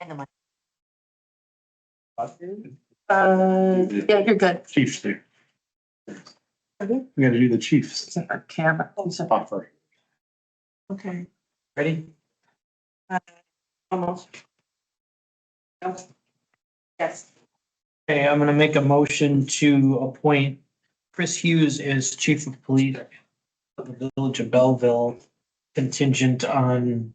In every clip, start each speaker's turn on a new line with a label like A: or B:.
A: Hang on.
B: Uh, yeah, you're good.
C: Chiefs do. We gotta do the Chiefs.
B: Except for camera.
C: Offer.
A: Oh, Okay,
C: Ready?
A: almost. Nope. Yes,
D: Okay, I'm gonna make a motion to appoint Chris Hughes as chief of police of the village of Belleville contingent on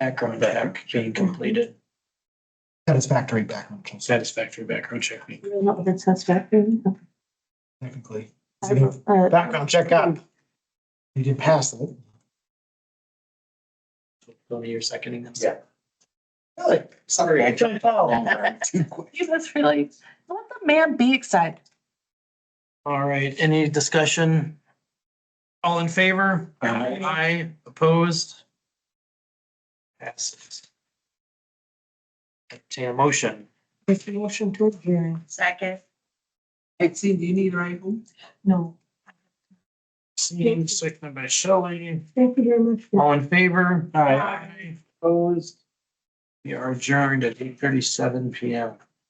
D: background check being completed,
E: Satisfactory background checks,
D: satisfactory background check. being-
B: Not with satisfactory.
E: technically.
B: I
E: So,
B: have, uh,
E: Background check up. You did pass it.
D: Tony, you're seconding this?
C: Yeah.
E: Really? Sorry, I jumped out. Too quick.
B: You must really, let the man be excited.
D: All right, any discussion? All in favor?
C: Aye.
D: Aye, opposed? Passes. Entertain a motion.
E: Make a motion to adjourn.
A: second.
F: Exceed, do you need a rifle?
B: No.
D: Seeing, seconded by Shelley.
B: Thank you very much.
D: All in favor?
C: All right.
D: Aye. Opposed? We are adjourned at eight thirty-seven P M.